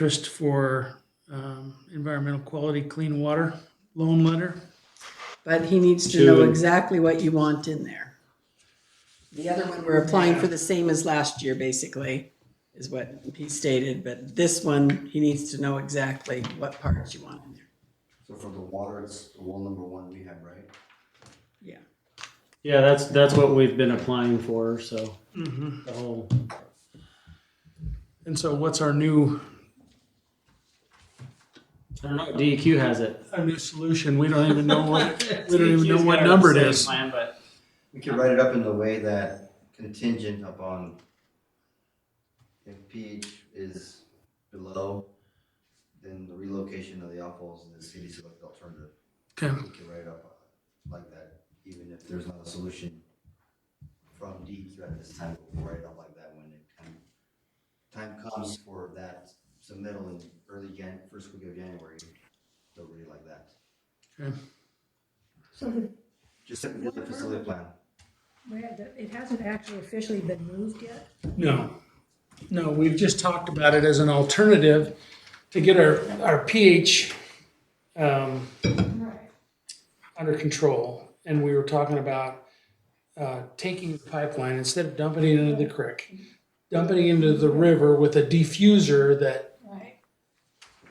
interest for um, environmental quality, clean water loan letter. But he needs to know Two. exactly what you want in there. The other one, we're applying for the same as last year, basically, is what he stated, but this one, he needs to know exactly what parts you want in there. So for the water, it's the wall number one we have, right? Yeah. Yeah, that's, that's what we've been applying for, so. Mm-hmm. The whole, And so what's our new, I don't know, E DEQ has it. our new solution? We don't even know what, we E don't even know what number it is. Plan, but We could write it up in the way that contingent upon if pH is below, then the relocation of the outfalls in the city select alternative. Okay, We could write it up uh, like that, even if there's not a solution from DEQ at this time, we'll write it up like that when it come. Time comes for that submittal in early Jan, first week of January, they'll read it like that. okay. Just simply the facility plan. Where the, it hasn't actually officially been moved yet. No, no, we've just talked about it as an alternative to get our, our pH um, Right. under control. And we were talking about uh, taking the pipeline, instead of dumping it into the creek, dumping it into the river with a diffuser that Right.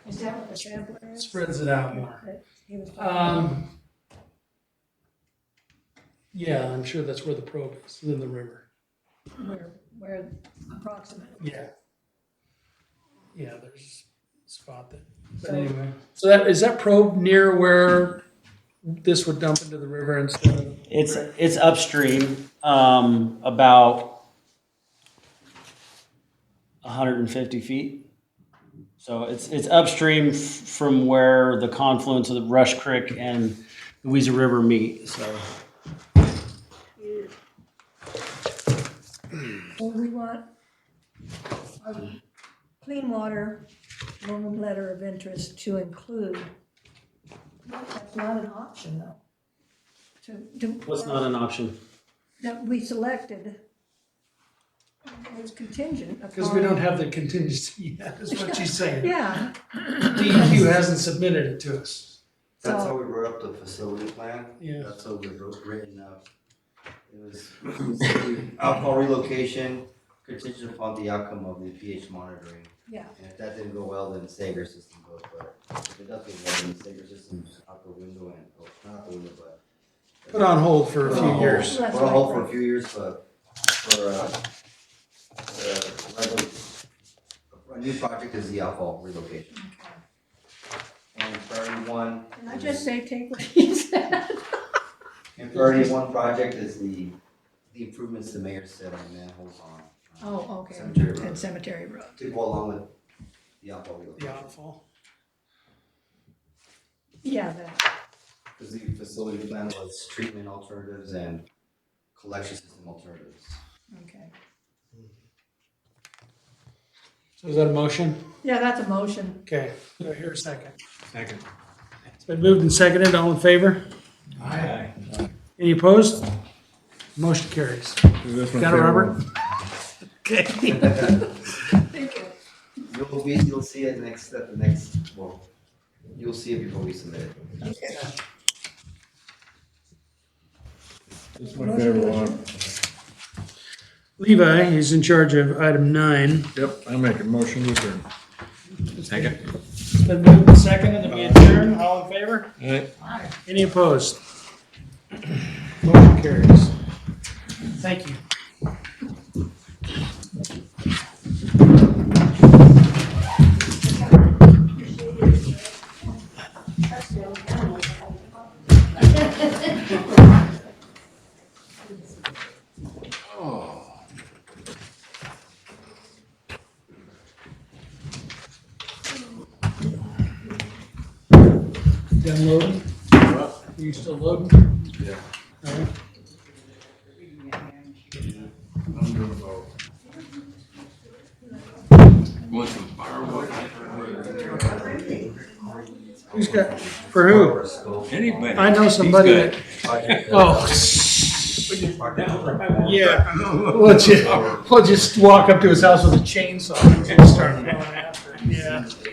Is that what the sampler is? spreads it out more. That he was talking about? Um, yeah, I'm sure that's where the probe is, in the river. Where, where approximately? Yeah. Yeah, there's a spot that, but So- anyway. So that, is that probe near where this would dump into the river instead of? It's, it's upstream, um, about hundred and fifty feet. So it's, it's upstream f- from where the confluence of the Rush Creek and the Weezer River meet, so. So we want a clean water loan letter of interest to include. That's not an option though. To, to. what's not an option? That we selected. It's contingent upon. Because we don't have the contingency yet, is what she's saying. Yeah, DEQ hasn't submitted it to us. That's So- how we wrote up the facility plan. Yeah. That's how we wrote, written up. It was alcohol relocation contingent upon the outcome of the pH monitoring. yeah. And if that didn't go well, then Sager system goes, but if it does go well, then Sager system's out the window and, oh, not out the window, but. Put on hold for Put a on few hold. years. Put on hold for a few years, but for, uh, uh, regular- a new project is the alcohol relocation. And priority one. Can I is- just say, take what he said? And priority one project is the, the improvements the mayor said on manholes on. uh, Oh, okay. Cemetery Road. At Cemetery Road. To go along with the alcohol The relocation. outfall. Yeah, that, Because the facility plan was treatment alternatives and collection system alternatives. okay. So is that a motion? Yeah, that's a motion. Okay, do I hear a second? Second. It's been moved and seconded, all in favor? Aye. Any opposed? Motion carries. Got it, Robert? Okay. Thank you. You'll be, you'll see it next, at the next, well, you'll see it before we submit it. It's my favorite one. Levi is in charge of item nine. Yep, I make a motion to adjourn. It's been moved and seconded, and we adjourn, all in favor? Any opposed? Motion carries. Thank you. Done loading? Are you still loading? Yeah. All right. I'm doing both. Who's got, for who? I know somebody that, oh. Yeah, we'll just, we'll just walk up to his house with a chainsaw and just start going after him. Yeah.